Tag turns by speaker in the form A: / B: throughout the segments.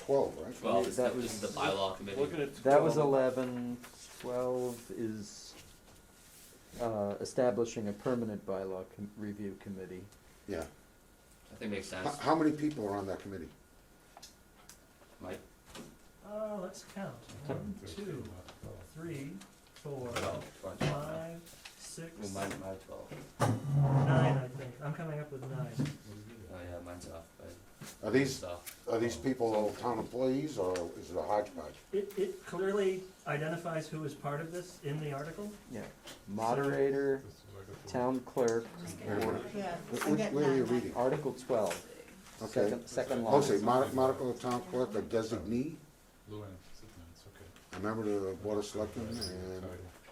A: twelve, right?
B: Twelve is
C: That
B: the,
C: was-
B: the bylaw committee.
D: Looking at
C: That was
D: twelve,
C: eleven, twelve is, uh, establishing a permanent bylaw com- review committee.
A: Yeah.
B: I think makes sense.
A: How, how many people are on that committee?
B: Mike,
E: Uh, let's count. One, two, three, four,
B: twelve. Well,
E: five, six,
D: Oh,
B: mine, mine twelve.
E: nine, I think. I'm coming up with nine.
B: Oh yeah, mine's off. But
A: Are these,
B: it's off.
A: are these people all town employees or is it a hodgepodge?
E: It, it clearly identifies who is part of this in the article.
C: Yeah, moderator, town clerk,
A: Wh-
F: Yeah, I
A: which-
F: get
A: Where are you
F: nine.
A: reading?
C: Article twelve,
A: Okay.
C: second, second line.
A: Oh, say, mod- modified town clerk or designee,
G: Lou Anne, it's no, it's
A: a
G: okay.
A: member of the board of selectmen and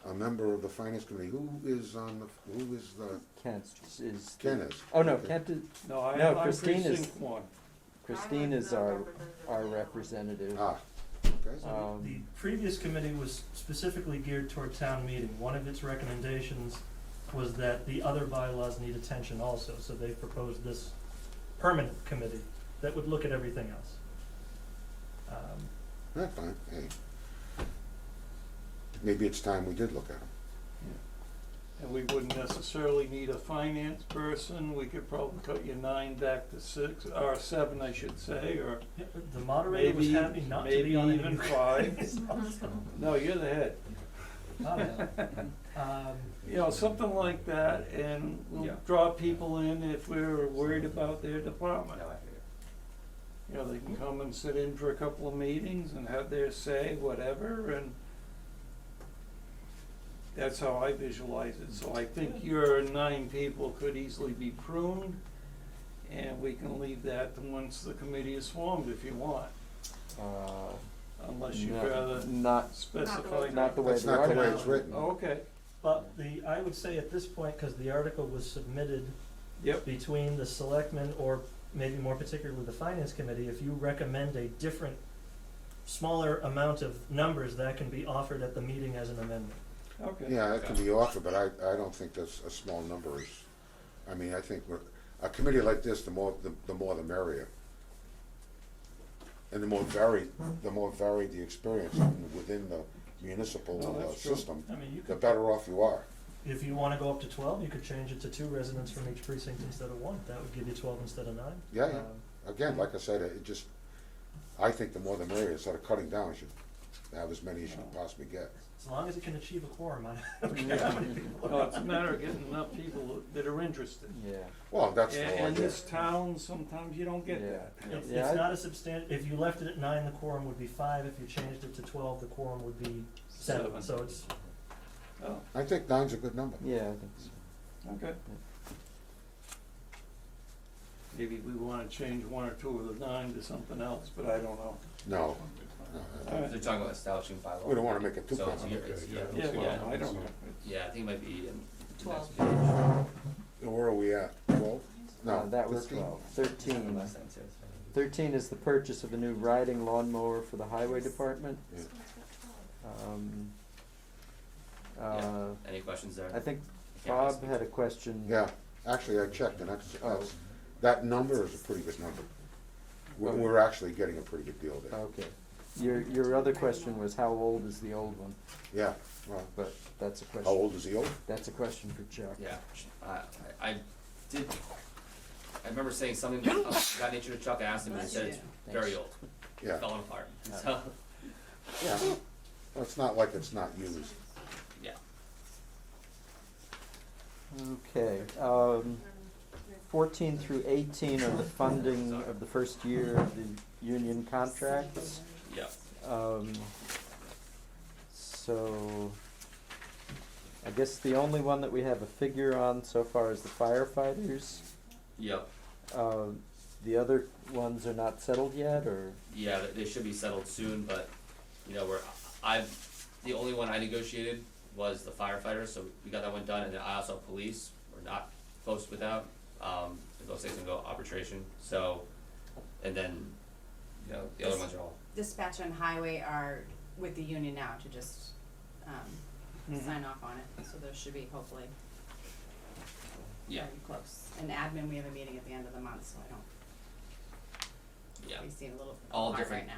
A: a member of the finance committee. Who is on the, who is the,
C: Kent is. the-
A: Ken is?
C: Oh, no, Kent is,
D: No, I,
C: No,
D: I'm
C: Christine is-
D: precinct one.
C: Christine is our, our representative.
A: Ah, okay.
C: Um,
E: The previous committee was specifically geared toward town meeting. One of its recommendations was that the other bylaws need attention also, so they proposed this permanent committee that would look at everything else. Um,
A: That's fine, hey. Maybe it's time we did look at them.
D: And we wouldn't necessarily need a finance person, we could probably cut your nine back to six, or seven, I should say, or
E: The moderator was
D: maybe,
E: happy not to
D: maybe
E: be on
D: even
E: any.
D: five. No, you're the head,
E: Oh, Um,
D: you know, something like that, and
B: Yeah.
D: we'll draw people in if we're worried about their department.
B: No, I figured.
D: You know, they can come and sit in for a couple of meetings and have their say, whatever, and that's how I visualize it. So I think your nine people could easily be pruned, and we can leave that to once the committee is formed if you want,
C: uh,
D: unless you'd
C: no,
D: rather
C: Not,
D: specify. Oh,
C: not the way
A: That's
C: the
A: not the way
C: article,
A: it's written.
D: Okay,
E: But the, I would say at this point, because the article was submitted
D: yep,
E: between the selectmen or maybe more particularly the finance committee, if you recommend a different, smaller amount of numbers, that can be offered at the meeting as an amendment.
D: okay.
A: Yeah, that can be offered, but I, I don't think that's a small number is, I mean, I think we're, a committee like this, the more, the, the more the merrier. And the more varied, the more varied the experience within the
D: No,
A: municipal uh,
D: that's true.
A: system,
E: I mean, you
A: the
E: could,
A: better off you are.
E: if you wanna go up to twelve, you could change it to two residents from each precinct instead of one. That would give you twelve instead of nine.
A: Yeah, yeah.
E: Um,
A: Again, like I said, it just, I think the more the merrier, instead of cutting down, you should have as many as you can possibly get.
E: As long as it can achieve a quorum, I
D: No, it's a matter of getting enough people that are interested.
C: yeah.
A: Well, that's the whole
D: And in
A: idea.
D: this town, sometimes you don't get that.
C: Yeah.
E: It's,
C: Yeah, I-
E: it's not a substan, if you left it at nine, the quorum would be five, if you changed it to twelve, the quorum would be seven,
D: Seven.
E: so it's,
D: Oh,
A: I think nine's a good number.
C: Yeah, I think so.
D: Okay. Maybe we wanna change one or two of the nine to something else, but I don't know.
A: No, uh, no, I-
D: All right.
B: They're talking about establishing bylaw.
A: we don't wanna make it too
B: So it's
A: complicated.
B: your- it's-
G: Yeah,
B: yeah.
D: Yeah, yeah, I don't know.
B: Yeah, I think it might be in.
F: Twelve.
A: Where are we at? Twelve?
C: Uh,
A: No,
C: That was
A: 13?
C: twelve. Thirteen. Thirteen is the purchase of a new riding lawnmower for the highway department.
A: Yeah.
C: Um,
B: Yeah.
C: uh,
B: Any questions there?
C: I
B: I
C: think
B: can't really
C: Bob
B: speak.
C: had a question.
A: Yeah, actually, I checked, and that's,
C: Oh.
A: that's, that number is a pretty good number. We're,
C: Okay.
A: we're actually getting a pretty good deal there.
C: Okay. Your, your other question was how old is the old one,
A: Yeah, well,
C: but that's a
A: how
C: question,
A: old is he old?
C: that's a question for Chuck.
B: Yeah, I, I I did, I remember saying something of that nature to Chuck, I asked him, and he said it's very old,
A: Yeah,
B: falling apart, so,
A: yeah. Well, It's not like it's not used.
B: yeah.
C: Okay, um, fourteen through eighteen are the funding of the first year of the union contracts.
B: Yeah,
C: Um, so, I guess the only one that we have a figure on so far is the firefighters.
B: yep,
C: Um, the other ones are not settled yet, or,
B: yeah, they, they should be settled soon, but, you know, we're, I've, the only one I negotiated was the firefighter, so we got that one done, and then I also have police, we're not close with that, um, those things can go arbitration, so, and then, you know, the other ones are all,
F: Dispatch and highway are with the union now to just, um,
C: Hmm.
D: Mhm.
F: sign off on it, so those should be hopefully
B: yeah,
F: very close. And admin, we have a meeting at the end of the month, so I don't,
B: yeah.
F: we see a little
B: All
F: hard
B: different
F: right now.